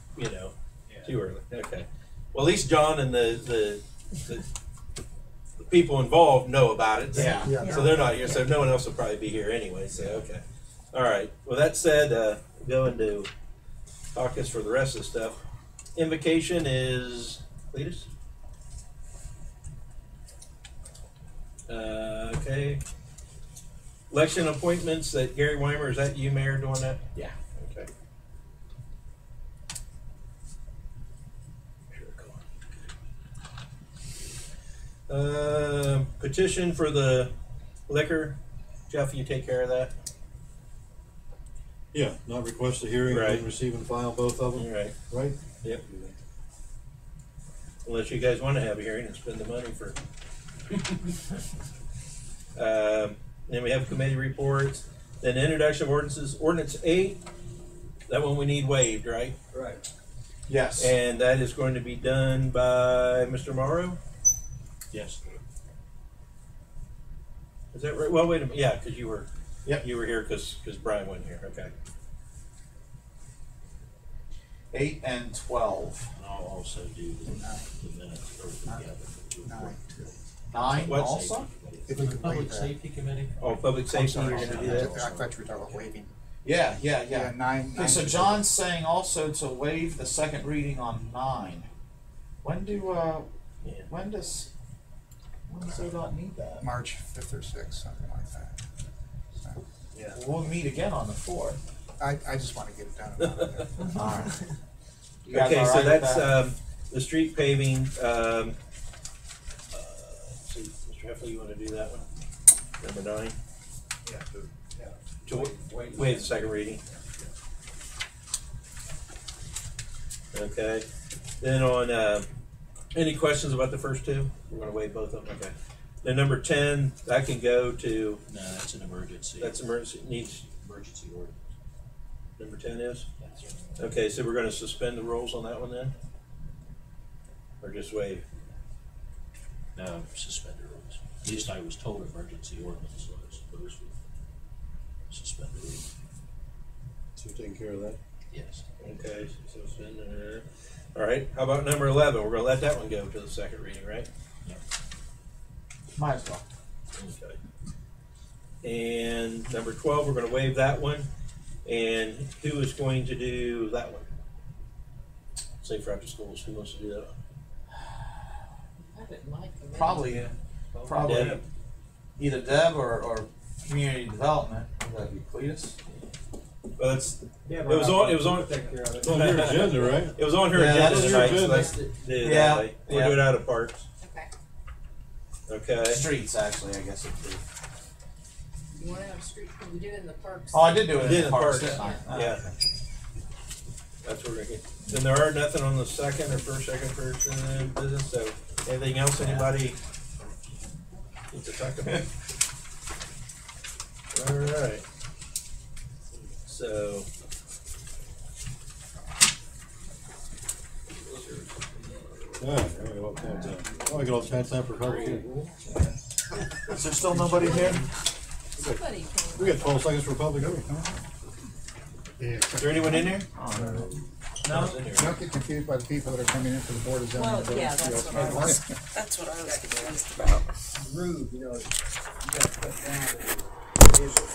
too early. Okay. Well, at least John and the the, the, the people involved know about it. Yeah. Yeah. So they're not here. So no one else will probably be here anyway. So okay. All right. Well, that said, uh, going to caucus for the rest of the stuff. Invocation is Cletus. Uh, okay. Election appointments that Gary Weimer, is that you, Mayor, doing that? Yeah. Okay. Uh, petition for the liquor. Jeff, you take care of that. Yeah, not request a hearing, Right. and receive and file both of All them, right. right? Yep. Unless you guys want to have a hearing and spend the money for. um, then we have committee reports. Then introduction of ordinances. Ordinance eight. That one we need waived, right? Right. Yes. And that is going to be done by Mr. Morrow. yes. Is that right? Well, wait a minute. Yeah, because you were. Yep. You were here because because Brian wasn't here. Okay. Eight and twelve. And I'll also do the the minutes for the other. Nine. Nine What's- also. If we could waive Public that. safety committee? Oh, public I'm safety. You're sorry, going to do I that. thought you were talking about waiving. Yeah, yeah, yeah. nine. Okay, so nine- John's saying also to waive the second reading on nine. When do uh, Yeah. when does when does ODOT need that? March fifth or sixth, something like that. So, We'll meet again on the fourth. I, I just wanna get it done. and out of there. All right. You guys Okay, all right so with that's that? um, the street paving. Um, uh, let's see, Mr. Heffley, you want to do that one? Number nine. Yeah, uh, to- To wa- waive the second reading. Okay. Then on uh, any questions about the first two? We're going to waive both of them. Okay. Then number ten, that can go to No, that's an emergency. that's emergency needs. Emergency order. Number ten is. That's it. Okay, so we're gonna suspend the rules on that one then? Or just waive? No, suspended rules. At least I was told emergency ordinance, so I suppose we suspend the rules. So you're taking care of that? Yes. Okay, so suspend, uh, all right, how about number eleven? We're gonna let that one go to the second reading, right? Might as well. Okay. And number twelve, we're gonna waive that one, and who is going to do that one? Say for after schools, who wants to do that? one? Probably probably Deb? either Deb or, or community development. Would that be Cletus? Well, that's, Yeah, it but was I- on, it was on, Take care of it. It's on your agenda, right? it was on her Yeah, agenda that's tonight, so your agenda. let's do it Yeah, that way. We'll yeah. do it out of parts, Okay. okay? Streets, actually, I guess it'd be. You want to have street, we did it in the parks. Oh, I did do We it did in the the parks, parks, didn't I? Ah, yeah. okay. That's what we're gonna get. Then there are nothing on the second or first, second person business, so anything else anybody needs to talk about? Alright. So. Yeah, I got all kinds of- oh, I got all kinds of time for public. Is there still nobody here? Somebody can. We got twelve seconds for public hearing. Yeah, Is there anyone in there? Oh, Um, No. one's in here. Don't get confused by the people that are coming in for the board of zoning. Well, and Board of yeah, that's Appeals. what I was- That's what I was confused about. Rude, you know, you gotta put down.